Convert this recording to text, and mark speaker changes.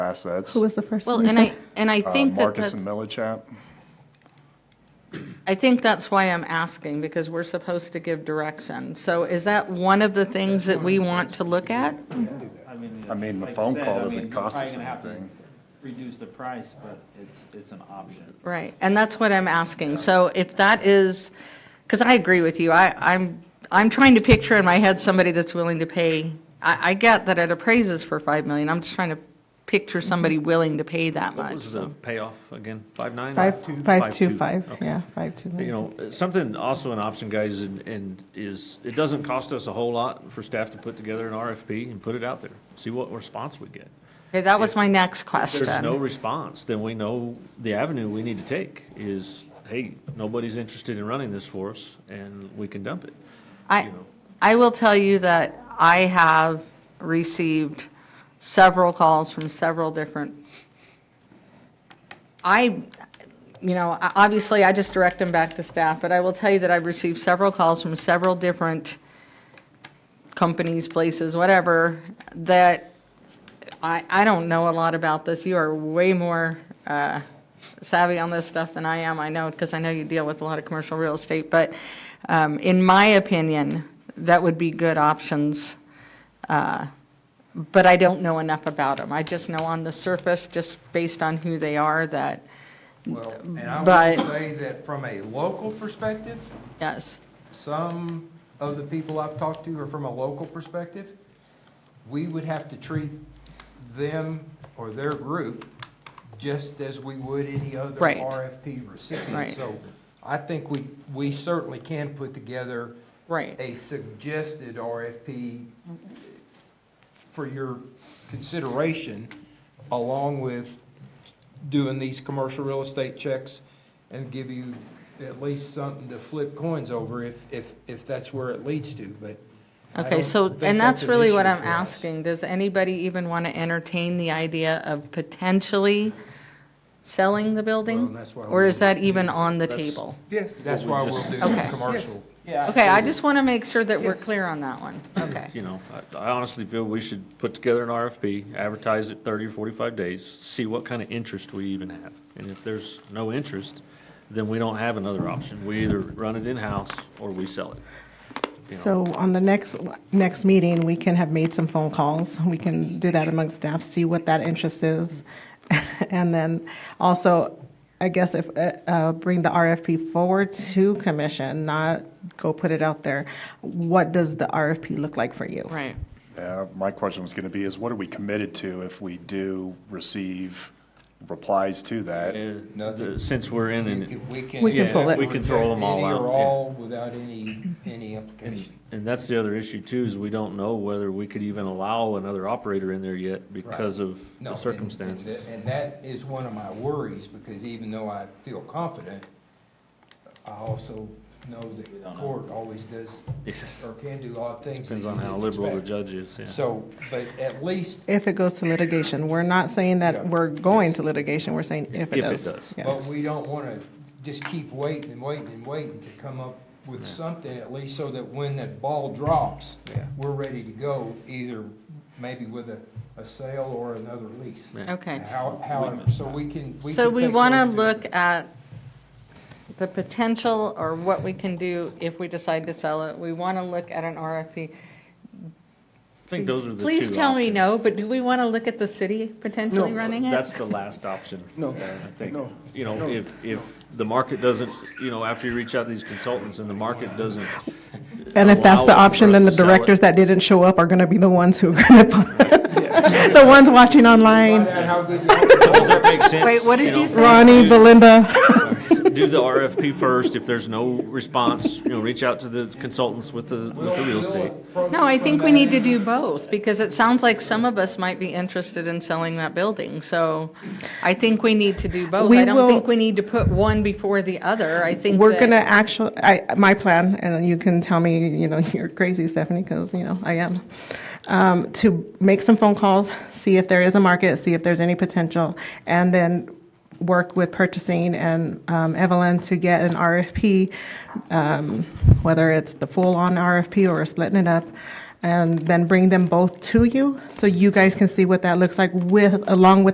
Speaker 1: assets.
Speaker 2: Who was the first?
Speaker 3: Well,
Speaker 2: one you
Speaker 3: and
Speaker 2: said?
Speaker 3: I, and I
Speaker 1: uh,
Speaker 3: think that,
Speaker 1: Marcus
Speaker 3: that-
Speaker 1: and Millichap.
Speaker 3: I think that's why I'm asking, because we're supposed to give direction. So is that one of the things that we want to look at?
Speaker 4: I mean.
Speaker 1: I mean, the
Speaker 4: like I
Speaker 1: phone
Speaker 4: said,
Speaker 1: call
Speaker 4: I
Speaker 1: doesn't
Speaker 4: mean, you're
Speaker 1: cost
Speaker 4: probably
Speaker 1: us
Speaker 4: gonna have to
Speaker 1: anything.
Speaker 4: Reduce the price, but it's, it's an option.
Speaker 3: Right, and that's what I'm asking. So if that is, because I agree with you, I, I'm, I'm trying to picture in my head somebody that's willing to pay, I, I get that it appraises for 5 million, I'm just trying to picture somebody willing to pay that
Speaker 5: What
Speaker 3: much.
Speaker 5: was the payoff again? Five nine?
Speaker 2: Five, five, two, five,
Speaker 5: Okay.
Speaker 2: yeah, five, two.
Speaker 5: You know, something also an option, guys, and, and is, it doesn't cost us a whole lot for staff to put together an RFP and put it out there. See what response we get.
Speaker 3: Okay, that was my next
Speaker 5: If there's no
Speaker 3: question.
Speaker 5: response, then we know the avenue we need to take is, hey, nobody's interested in running this for us, and we can dump it.
Speaker 3: I, I will tell you that I have received several calls from several different I, you know, I- obviously, I just direct them back to staff, but I will tell you that I've received several calls from several different companies, places, whatever, that I, I don't know a lot about this. You are way more uh, savvy on this stuff than I am, I know, because I know you deal with a lot of commercial real estate. But um, in my opinion, that would be good options uh, but I don't know enough about them. I just know on the surface, just based on who they are, that,
Speaker 6: Well, and I
Speaker 3: But-
Speaker 6: would say that from a local perspective,
Speaker 3: yes,
Speaker 6: some of the people I've talked to are from a local perspective. We would have to treat them or their group just as we would any other
Speaker 3: Right.
Speaker 6: RFP recipient.
Speaker 3: Right.
Speaker 6: So I think we, we certainly can put together
Speaker 3: right,
Speaker 6: a suggested RFP for your consideration, along with doing these commercial real estate checks and give you at least something to flip coins over if, if, if that's where it leads to, but. I
Speaker 3: Okay,
Speaker 6: don't
Speaker 3: so,
Speaker 6: think
Speaker 3: and that's
Speaker 6: an
Speaker 3: really what
Speaker 6: issue
Speaker 3: I'm
Speaker 6: for us.
Speaker 3: asking. Does anybody even want to entertain the idea of potentially selling the
Speaker 6: Well,
Speaker 3: building?
Speaker 6: that's why
Speaker 3: Or is
Speaker 6: we-
Speaker 3: that even on the
Speaker 5: That's-
Speaker 3: table?
Speaker 7: Yes.
Speaker 6: That's why we'll do
Speaker 3: Okay.
Speaker 6: commercial.
Speaker 4: Yeah.
Speaker 3: Okay, I just want to make sure that we're
Speaker 7: Yes.
Speaker 3: clear on that one. Okay,
Speaker 5: You know, I- I honestly feel we should put together an RFP, advertise it 30 or 45 days, see what kind of interest we even have. And if there's no interest, then we don't have another option. We either run it in-house or we sell it. You know,
Speaker 2: So on the next, next meeting, we can have made some phone calls. We can do that amongst staff, see what that interest is. And then also, I guess if, uh, uh, bring the RFP forward to commission, not go put it out there. What does the RFP look like for you?
Speaker 3: right.
Speaker 1: Yeah, my question was going to be is what are we committed to if we do receive replies to that?
Speaker 5: and
Speaker 6: Nothing.
Speaker 5: the- Uh, Since we're in,
Speaker 6: We
Speaker 5: and,
Speaker 6: can- we can.
Speaker 2: We can pull it.
Speaker 5: we can throw them all
Speaker 6: Any
Speaker 5: out,
Speaker 6: or
Speaker 5: yeah.
Speaker 6: all without any, any implication.
Speaker 5: and that's the other issue too, is we don't know whether we could even allow another operator in there yet because of
Speaker 6: No,
Speaker 5: the
Speaker 6: and- and
Speaker 5: circumstances.
Speaker 6: that- And that is one of my worries, because even though I feel confident, I also know that the court always does,
Speaker 5: Yes.
Speaker 6: or can do odd things. that
Speaker 5: Depends
Speaker 6: you
Speaker 5: on how
Speaker 6: didn't
Speaker 5: liberal the
Speaker 6: expect.
Speaker 5: judge is, yeah.
Speaker 6: So, but at least,
Speaker 2: If it goes to litigation, we're not saying
Speaker 6: Yeah.
Speaker 2: that we're going to litigation, we're saying if it
Speaker 5: If it
Speaker 2: does.
Speaker 5: does.
Speaker 2: Yeah.
Speaker 6: but we don't want to just keep waiting and waiting and waiting to come up with something, at least so that when that ball drops,
Speaker 5: Yeah.
Speaker 6: we're ready to go, either maybe with a, a sale or another lease.
Speaker 5: Yeah.
Speaker 3: Okay.
Speaker 6: How, however, so we can.
Speaker 3: So
Speaker 6: can
Speaker 3: we
Speaker 6: take
Speaker 3: want to
Speaker 6: those two-
Speaker 3: look at the potential or what we can do if we decide to sell it. We want to look at an RFP.
Speaker 5: I think those are the
Speaker 3: Please
Speaker 5: two
Speaker 3: tell me
Speaker 5: options.
Speaker 3: no, but do we want to look at the city potentially
Speaker 7: No,
Speaker 3: running
Speaker 5: That's
Speaker 3: it?
Speaker 5: the last option.
Speaker 7: No,
Speaker 5: uh, I think.
Speaker 7: no,
Speaker 5: You know,
Speaker 7: no,
Speaker 5: if, if the market doesn't, you know, after you reach out to these consultants and the market doesn't.
Speaker 2: And
Speaker 5: Oh,
Speaker 2: if that's the
Speaker 5: allow
Speaker 2: option,
Speaker 5: for
Speaker 2: then the
Speaker 5: us to sell it,
Speaker 2: directors that didn't show up are going to be the ones who are going to, the ones watching
Speaker 6: Find
Speaker 2: online,
Speaker 6: out how good you are.
Speaker 5: Does that make sense?
Speaker 3: Wait, what did
Speaker 5: know,
Speaker 3: you say?
Speaker 2: Ronnie, Belinda.
Speaker 5: Do the RFP first. If there's no response, you know, reach out to the consultants with the, with the real estate.
Speaker 3: No, I think we need to do both because it sounds like some of us might be interested in selling that building. So I think we need to do both.
Speaker 2: We
Speaker 3: I don't
Speaker 2: will-
Speaker 3: think we need to put one before the other. I think
Speaker 2: We're
Speaker 3: that-
Speaker 2: gonna actually, I, my plan, and you can tell me, you know, you're crazy, Stephanie, because, you know, I am, um, to make some phone calls, see if there is a market, see if there's any potential, and then work with purchasing and um, Evelyn to get an RFP, um, whether it's the full-on RFP or splitting it up, and then bring them both to you, so you guys can see what that looks like with, along with